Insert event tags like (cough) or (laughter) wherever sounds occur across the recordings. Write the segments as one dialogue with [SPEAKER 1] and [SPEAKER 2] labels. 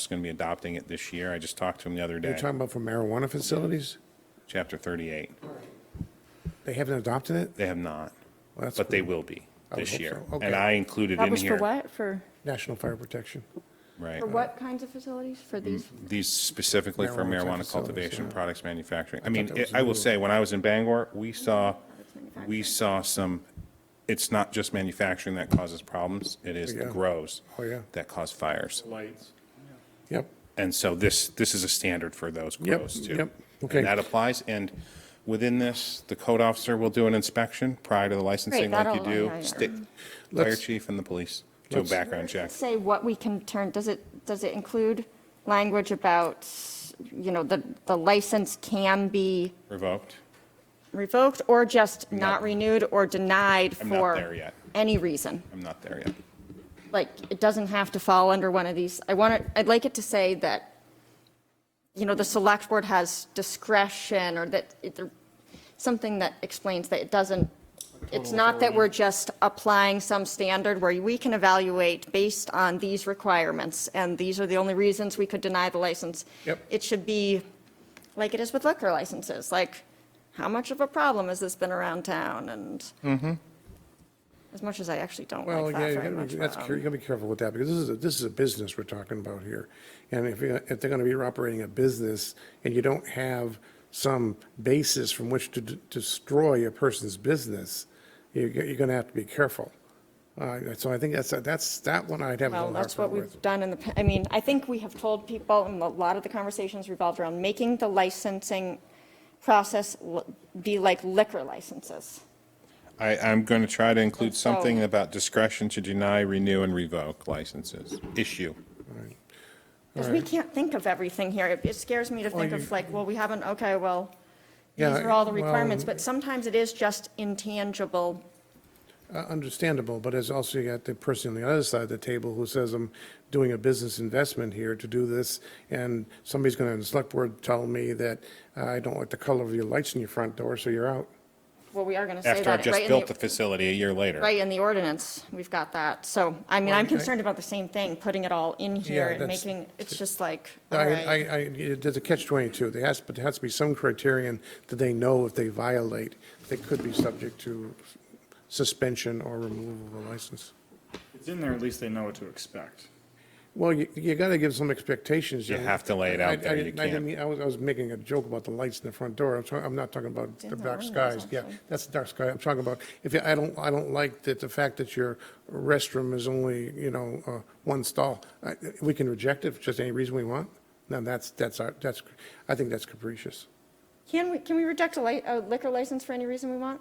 [SPEAKER 1] is going to be adopting it this year. I just talked to him the other
[SPEAKER 2] You're
[SPEAKER 1] day,
[SPEAKER 2] talking about for marijuana facilities?
[SPEAKER 1] chapter 38.
[SPEAKER 2] They haven't adopted it?
[SPEAKER 1] They have not,
[SPEAKER 2] Well, that's
[SPEAKER 1] but they
[SPEAKER 2] good.
[SPEAKER 1] will be
[SPEAKER 2] I would
[SPEAKER 1] this
[SPEAKER 2] hope
[SPEAKER 1] year.
[SPEAKER 2] so.
[SPEAKER 1] And
[SPEAKER 2] Okay.
[SPEAKER 1] I included
[SPEAKER 3] That
[SPEAKER 1] in
[SPEAKER 3] was for
[SPEAKER 1] here.
[SPEAKER 3] what? For,
[SPEAKER 2] National Fire Protection.
[SPEAKER 1] Right.
[SPEAKER 3] for what kinds of facilities? For these?
[SPEAKER 1] These specifically for
[SPEAKER 2] Marijuana
[SPEAKER 1] marijuana
[SPEAKER 2] facilities,
[SPEAKER 1] cultivation,
[SPEAKER 2] yeah.
[SPEAKER 1] products manufacturing. I mean,
[SPEAKER 2] that was
[SPEAKER 1] I will
[SPEAKER 2] new.
[SPEAKER 1] say, when I was in Bangor, we saw,
[SPEAKER 3] Manufacturing.
[SPEAKER 1] we saw some, it's not just manufacturing that causes problems, it is the
[SPEAKER 2] Yeah.
[SPEAKER 1] grows
[SPEAKER 2] Oh, yeah.
[SPEAKER 1] that cause fires.
[SPEAKER 4] lights.
[SPEAKER 2] Yep.
[SPEAKER 1] And so this, this is a standard for those
[SPEAKER 2] Yep,
[SPEAKER 1] grows too.
[SPEAKER 2] yep, okay.
[SPEAKER 1] And that applies, and within this, the code officer will do an inspection prior to the licensing like you
[SPEAKER 3] that'll-
[SPEAKER 1] do.
[SPEAKER 3] yeah, yeah.
[SPEAKER 1] sta- Fire
[SPEAKER 2] Let's-
[SPEAKER 1] chief and the police do a
[SPEAKER 2] Let's-
[SPEAKER 1] background check.
[SPEAKER 3] Say what we can turn, does it, does it include language about, you know, the, the license can be
[SPEAKER 1] Revoked?
[SPEAKER 3] revoked or just
[SPEAKER 1] Not-
[SPEAKER 3] not renewed or denied
[SPEAKER 1] I'm not there
[SPEAKER 3] for
[SPEAKER 1] yet.
[SPEAKER 3] any reason?
[SPEAKER 1] I'm not there yet.
[SPEAKER 3] like, it doesn't have to fall under one of these. I want it, I'd like it to say that, you know, the select board has discretion or that it, something that explains that it doesn't, it's not that we're just applying some standard where we can evaluate based on these requirements and these are the only reasons we could deny the license.
[SPEAKER 2] Yep.
[SPEAKER 3] It should be like it is with liquor licenses, like how much of a problem has this been around town and as much as I actually don't
[SPEAKER 2] Mm-hmm. Well,
[SPEAKER 3] like
[SPEAKER 2] yeah,
[SPEAKER 3] that
[SPEAKER 2] you
[SPEAKER 3] very
[SPEAKER 2] gotta
[SPEAKER 3] much.
[SPEAKER 2] be, that's,
[SPEAKER 3] but, um,
[SPEAKER 2] you gotta be careful with that, because this is, a this is a business we're talking about here. And if, you- if they're gonna be operating a business and you don't have some basis from which to d- destroy a person's business, you're, go- you're gonna have to be careful. Uh, so I think that's, that's, that one I'd have a
[SPEAKER 3] Well,
[SPEAKER 2] little hard
[SPEAKER 3] that's what
[SPEAKER 2] time with.
[SPEAKER 3] we've done in the, pa- I mean, I think we have told people, and a lot of the conversations revolved around making the licensing process l- be like liquor licenses.
[SPEAKER 1] I, I'm going to try to include
[SPEAKER 3] So-
[SPEAKER 1] something about discretion to deny, renew, and revoke licenses. Issue.
[SPEAKER 3] Because we can't think of everything here. It- It scares me to think
[SPEAKER 2] you-
[SPEAKER 3] of like, well, we haven't, okay, well, these
[SPEAKER 2] Yeah,
[SPEAKER 3] are all the
[SPEAKER 2] well-
[SPEAKER 3] requirements, but sometimes it is just intangible.
[SPEAKER 2] Uh, Understandable, but it's also you got the person on the other side of the table who says, I'm doing a business investment here to do this, and somebody's gonna, in the select board, tell me that uh, I don't like the color of your lights in your front door, so you're out.
[SPEAKER 3] Well, we are going to say that.
[SPEAKER 1] After I've
[SPEAKER 3] right
[SPEAKER 1] just
[SPEAKER 3] in
[SPEAKER 1] built
[SPEAKER 3] the-
[SPEAKER 1] the facility a year later.
[SPEAKER 3] Right, in the ordinance, we've got that. So, I mean, I'm
[SPEAKER 2] Well, I-
[SPEAKER 3] concerned about the same thing, putting it all in
[SPEAKER 2] Yeah,
[SPEAKER 3] here and
[SPEAKER 2] that's-
[SPEAKER 3] making, it's just like,
[SPEAKER 2] I,
[SPEAKER 3] all
[SPEAKER 2] I,
[SPEAKER 3] right.
[SPEAKER 2] I- there's a catch twenty-two, there has, but there has to be some criterion that they know if they violate, they could be subject to suspension or removal of a license.
[SPEAKER 4] It's in there, at least they know what to expect.
[SPEAKER 2] Well, you, you gotta give some expectations.
[SPEAKER 1] You
[SPEAKER 2] know.
[SPEAKER 1] have to lay it out
[SPEAKER 2] I- I
[SPEAKER 1] there, you
[SPEAKER 2] didn't- I didn't
[SPEAKER 1] can't.
[SPEAKER 2] mean- I was, I was making a joke about the lights in the front door, I'm, sorry, I'm not talking about
[SPEAKER 3] in
[SPEAKER 2] the
[SPEAKER 3] the
[SPEAKER 2] dark
[SPEAKER 3] ordinance,
[SPEAKER 2] skies, yeah,
[SPEAKER 3] actually.
[SPEAKER 2] that's the dark sky, I'm talking about, if, you- I don't, I don't like that the fact that your restroom is only, you know, uh, one stall, I, we can reject it for just any reason we want, now that's, that's, our that's, I think that's capricious.
[SPEAKER 3] Can we, can we reject a li- a liquor license for any reason we want?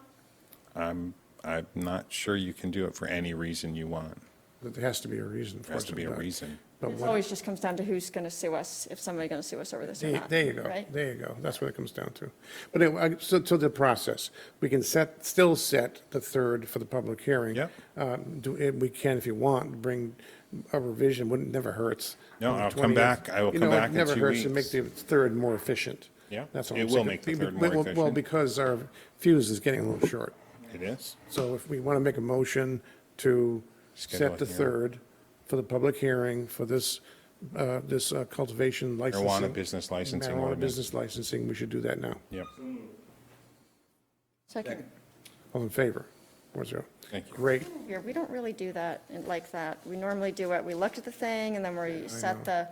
[SPEAKER 1] I'm, I'm not sure you can do it for any reason you want.
[SPEAKER 2] That There has to be a reason for it.
[SPEAKER 1] There has to be a
[SPEAKER 2] but-
[SPEAKER 1] reason.
[SPEAKER 2] But
[SPEAKER 3] It
[SPEAKER 2] what,
[SPEAKER 3] always just comes down to who's going to sue us, if somebody's going to sue us over this or
[SPEAKER 2] there
[SPEAKER 3] not.
[SPEAKER 2] there you go,
[SPEAKER 3] right?
[SPEAKER 2] there you go, that's what it comes down to. But anyway, I- so, to the process, we can set, still set the third for the public hearing.
[SPEAKER 1] Yep.
[SPEAKER 2] Um, do, eh, we can, if you want, bring a revision, wouldn't, never hurts.
[SPEAKER 1] No,
[SPEAKER 2] on the
[SPEAKER 1] I'll come
[SPEAKER 2] 20th.
[SPEAKER 1] back. I will
[SPEAKER 2] You
[SPEAKER 1] come
[SPEAKER 2] know, it
[SPEAKER 1] back in
[SPEAKER 2] never
[SPEAKER 1] two
[SPEAKER 2] hurts to
[SPEAKER 1] weeks.
[SPEAKER 2] Make the third more efficient.
[SPEAKER 1] Yeah,
[SPEAKER 2] That's all
[SPEAKER 1] it
[SPEAKER 2] I'm
[SPEAKER 1] will
[SPEAKER 2] saying.
[SPEAKER 1] make the
[SPEAKER 2] Be-
[SPEAKER 1] third
[SPEAKER 2] be-
[SPEAKER 1] more
[SPEAKER 2] well, Well,
[SPEAKER 1] efficient.
[SPEAKER 2] because our fuse is getting a little short.
[SPEAKER 1] It is?
[SPEAKER 2] So if we want to make a motion to
[SPEAKER 1] Schedule a
[SPEAKER 2] set the
[SPEAKER 1] hearing.
[SPEAKER 2] third for the public hearing for this, uh, this uh, cultivation licensing.
[SPEAKER 1] Marijuana business licensing
[SPEAKER 2] Marijuana
[SPEAKER 1] ordinance.
[SPEAKER 2] business licensing, we should do that now.
[SPEAKER 1] Yep.
[SPEAKER 3] Second,
[SPEAKER 2] All in favor? Four zero.
[SPEAKER 1] Thank you.
[SPEAKER 2] Great.
[SPEAKER 3] here, we don't really do that and like that. We normally do it, we looked at the thing and then we set the,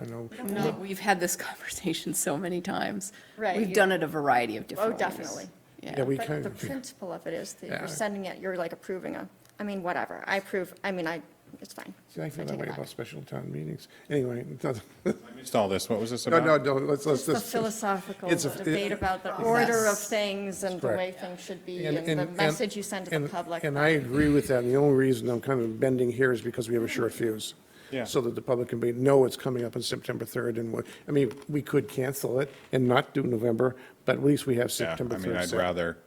[SPEAKER 2] I know.
[SPEAKER 5] No, we've had this (laughs) conversation so many times.
[SPEAKER 3] Right,
[SPEAKER 5] We've
[SPEAKER 3] you-
[SPEAKER 5] done it a variety of different
[SPEAKER 3] oh,
[SPEAKER 5] ways.
[SPEAKER 3] definitely.
[SPEAKER 2] Yeah,
[SPEAKER 5] Yeah.
[SPEAKER 2] we
[SPEAKER 3] But
[SPEAKER 2] kind
[SPEAKER 3] the
[SPEAKER 2] of,
[SPEAKER 3] principle of it is that
[SPEAKER 2] Yeah.
[SPEAKER 3] you're sending it, you're like approving a, I mean, whatever. I approve, I mean, I, it's fine.
[SPEAKER 2] (laughs) see, I feel that
[SPEAKER 3] take it
[SPEAKER 2] way
[SPEAKER 3] back.
[SPEAKER 2] about special town meetings. Anyway, (laughs) it doesn't-
[SPEAKER 1] I missed all this. What was this
[SPEAKER 2] no, no,
[SPEAKER 1] about?
[SPEAKER 2] no, let's, let's.
[SPEAKER 3] It's the
[SPEAKER 2] let's-
[SPEAKER 3] philosophical
[SPEAKER 2] it's a-
[SPEAKER 3] debate about the order of
[SPEAKER 5] Yes.
[SPEAKER 3] things and the
[SPEAKER 2] Correct.
[SPEAKER 3] way things should be
[SPEAKER 2] And-
[SPEAKER 3] and the
[SPEAKER 2] and-
[SPEAKER 3] message you send to the
[SPEAKER 2] and-
[SPEAKER 3] public.
[SPEAKER 2] And I agree with that. And the only reason I'm kind of bending here is because we have a short fuse.
[SPEAKER 1] Yeah.
[SPEAKER 2] So that the public can be, know it's coming up on September 3rd and what, I mean, we could cancel it and not do November, but at least we have
[SPEAKER 1] Yeah, I
[SPEAKER 2] September 3rd.
[SPEAKER 1] mean, I'd
[SPEAKER 2] set.
[SPEAKER 1] rather,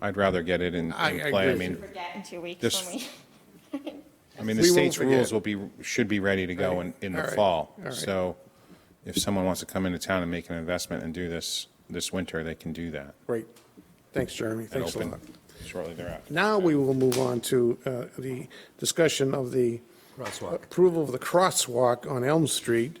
[SPEAKER 1] I'd rather get it in,
[SPEAKER 2] I- I
[SPEAKER 1] in play. I
[SPEAKER 2] agree.
[SPEAKER 1] mean,
[SPEAKER 3] Forget in two weeks
[SPEAKER 1] This-
[SPEAKER 3] when we.
[SPEAKER 1] I mean, the
[SPEAKER 2] We won't
[SPEAKER 1] state's
[SPEAKER 2] forget.
[SPEAKER 1] rules will be, should be ready to go in, in the
[SPEAKER 2] All right.
[SPEAKER 1] fall.
[SPEAKER 2] All right.
[SPEAKER 1] So if someone wants to come into town and make an investment and do this, this winter, they can do that.
[SPEAKER 2] Great. Thanks, Jeremy.
[SPEAKER 1] and
[SPEAKER 2] Thanks a
[SPEAKER 1] open
[SPEAKER 2] lot.
[SPEAKER 1] Shortly thereafter.
[SPEAKER 2] Now we will move on to uh, the discussion of the approval of the crosswalk on Elm Street.